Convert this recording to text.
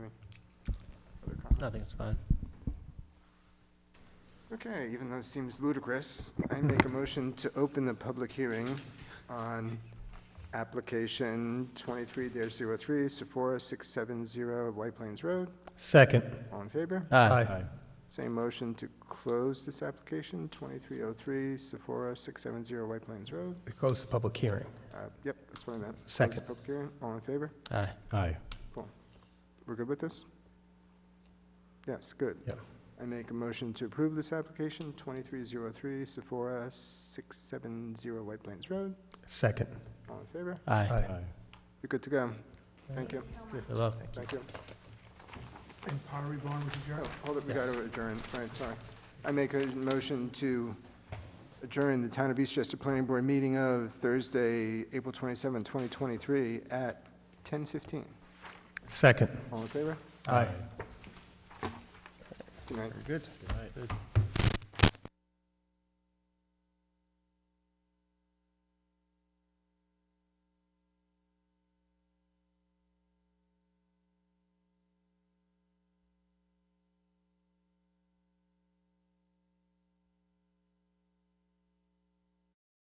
Nothing's fine. Okay, even though it seems ludicrous, I make a motion to open the public hearing on application 23-03, Sephora 670 White Plains Road. Second. All in favor? Aye. Same motion to close this application, 2303 Sephora 670 White Plains Road. It goes to public hearing. Uh, Yep, that's what I meant. Close the Second. public hearing. All in favor? Aye. Aye. We're good with this? Yes, good. Yep. I make a motion to approve this application, 2303 Sephora 670 White Plains Road. Second. All in favor? Aye. Aye. You're good to go. Thank you, You're welcome. thank you. And Pottery Barn was adjourned? Oh, Hold up, we got to adjourn, right, sorry. I make a motion to adjourn the Town of Eastchester Planning Board meeting of Thursday, April 27, 2023, at 10:15. Second. All in favor? Aye. Good night. Good.